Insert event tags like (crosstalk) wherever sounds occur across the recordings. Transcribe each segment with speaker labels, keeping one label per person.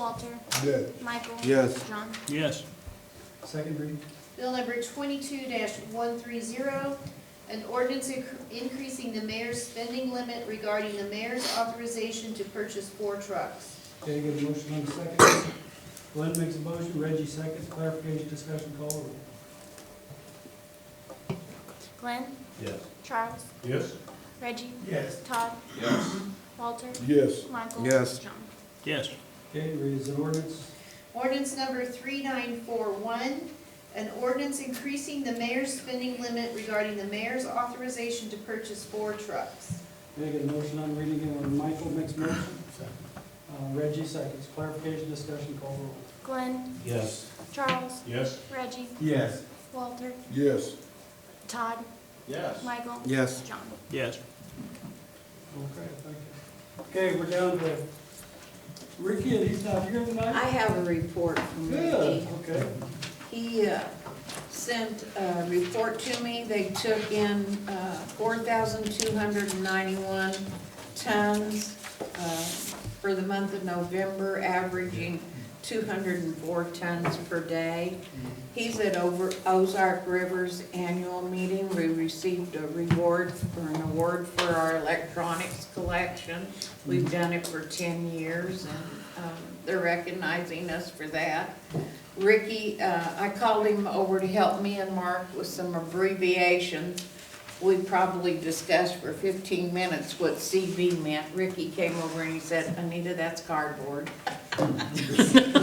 Speaker 1: Walter,
Speaker 2: Yes.
Speaker 1: Michael.
Speaker 2: Yes.
Speaker 1: John.
Speaker 3: Yes.
Speaker 4: Second reading?
Speaker 5: Bill number twenty-two one three zero, an ordinance inc- increasing the mayor's spending limit regarding the mayor's authorization to purchase four trucks.
Speaker 4: Okay, get a motion on the second. Glenn makes a motion, Reggie seconds, clarification, discussion, call roll.
Speaker 1: Glenn.
Speaker 2: Yes.
Speaker 1: Charles.
Speaker 2: Yes.
Speaker 1: Reggie.
Speaker 4: Yes.
Speaker 1: Todd.
Speaker 2: Yes.
Speaker 1: Walter.
Speaker 2: Yes.
Speaker 1: Michael.
Speaker 2: Yes.
Speaker 1: John.
Speaker 3: Yes.
Speaker 4: Okay, read as an ordinance.
Speaker 5: Ordinance number three nine four one, an ordinance increasing the mayor's spending limit regarding the mayor's authorization to purchase four trucks.
Speaker 4: Okay, get a motion on reading again when Michael makes a motion. Uh, Reggie seconds, clarification, discussion, call roll.
Speaker 1: Glenn.
Speaker 2: Yes.
Speaker 1: Charles.
Speaker 2: Yes.
Speaker 1: Reggie.
Speaker 4: Yes.
Speaker 1: Walter.
Speaker 2: Yes.
Speaker 1: Todd.
Speaker 2: Yes.
Speaker 1: Michael.
Speaker 2: Yes.
Speaker 1: John.
Speaker 3: Yes.
Speaker 4: Okay, thank you. Okay, we're down to Ricky, and he's not here tonight?
Speaker 6: I have a report from
Speaker 4: Good,
Speaker 6: Ricky.
Speaker 4: okay.
Speaker 6: He uh, sent a report to me. They took in uh, 4,291 tons uh, for the month of November, averaging 204 tons per day. He's at over Ozark River's annual meeting. We received a reward or an award for our electronics collection. We've done it for 10 years and um, they're recognizing us for that. Ricky, uh, I called him over to help me and Mark with some abbreviations. We probably discussed for fifteen minutes what CV meant. Ricky came over and he said, Anita, that's cardboard. (laughs)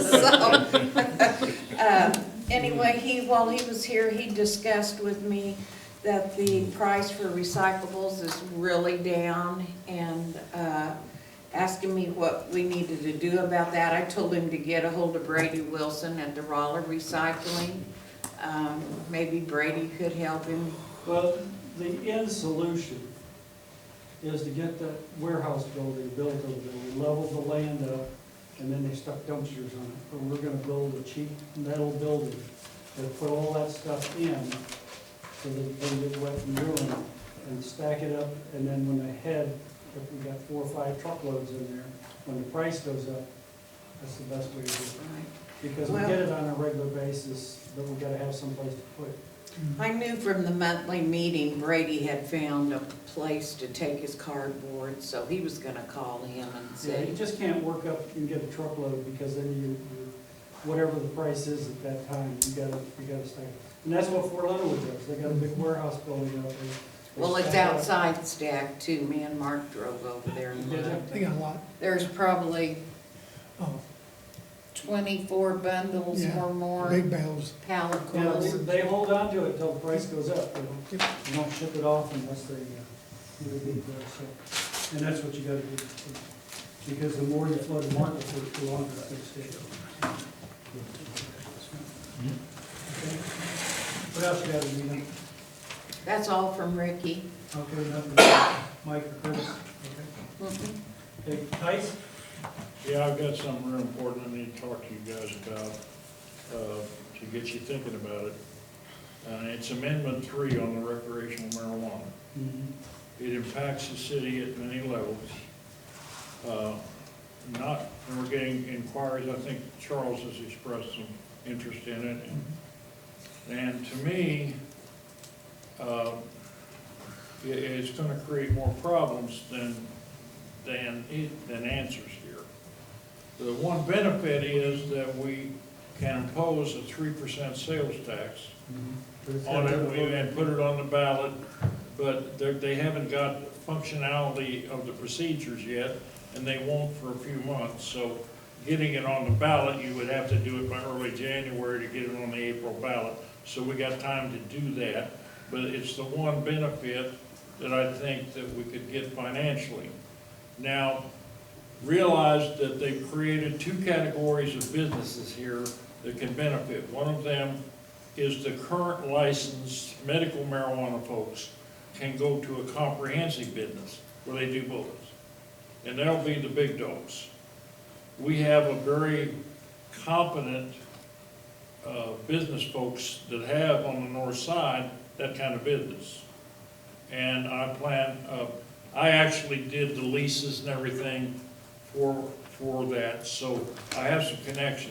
Speaker 6: So, (laughs) uh, anyway, he, while he was here, he discussed with me that the price for recyclables is really down and, uh, asking me what we needed to do about that. I told him to get a hold of Brady Wilson at the Roller Recycling. Um, maybe Brady could help him.
Speaker 4: Well, the end solution is to get that warehouse building built over there. We leveled the land up, and then they stuck dumpsters on it. But we're gonna build a cheap metal building and put all that stuff in so that it doesn't get wet and ruined, and stack it up, and then when they head, if we got four or five truckloads in there, when the price goes up, that's the best way to do it. Because we get it on a regular basis, but we gotta have someplace to put it.
Speaker 6: I knew from the monthly meeting Brady had found a place to take his cardboard, so he was gonna call him and
Speaker 4: Yeah, you
Speaker 6: say,
Speaker 4: just can't work up and get a truckload, because then you, you- whatever the price is at that time, you gotta, you gotta stack. it. And that's what Fort Leonard does, they got a big warehouse building out there. They
Speaker 6: well, it's
Speaker 4: stack up.
Speaker 6: outside stack too. Me and Mark drove over there and
Speaker 4: Did
Speaker 6: looked.
Speaker 4: you?
Speaker 7: They got a lot,
Speaker 6: There's probably
Speaker 7: oh,
Speaker 6: twenty-four bundles
Speaker 7: Yeah,
Speaker 6: or more
Speaker 7: big bales.
Speaker 6: pallet
Speaker 4: Yeah, they-
Speaker 6: quills.
Speaker 4: they hold on to it till the price goes up, they don't, they don't ship it off unless they, uh, do a big deal, so. And that's what you gotta do, because the more you flood the market, the the longer it's gonna stay. Okay. What else you got, Anita?
Speaker 6: That's all from Ricky.
Speaker 4: Okay, nothing, Mike or Chris, okay. Hey, Tice?
Speaker 8: Yeah, I've got something real important I need to talk to you guys about, uh, to get you thinking about it. Uh, it's amendment three on the recreational marijuana. It impacts the city at many levels. Uh, Not, we're getting inquiries, I think Charles has expressed some interest in it. And to me, uh, it, it's gonna create more problems than, than, it- than answers here. The one benefit is that we can impose a three percent sales tax on it, we had put it on the ballot, but they're- they haven't got functionality of the procedures yet, and they won't for a few months, so getting it on the ballot, you would have to do it by early January to get it on the April ballot, so we got time to do that, but it's the one benefit that I think that we could get financially. Now, realize that they've created two categories of businesses here that can benefit. One of them is the current licensed medical marijuana folks can go to a comprehensive business where they do bullets. And that'll be the big dogs. We have a very competent, uh, business folks that have on the north side that kind of business. And I plan, uh, I actually did the leases and everything for, for that, so I have some connections.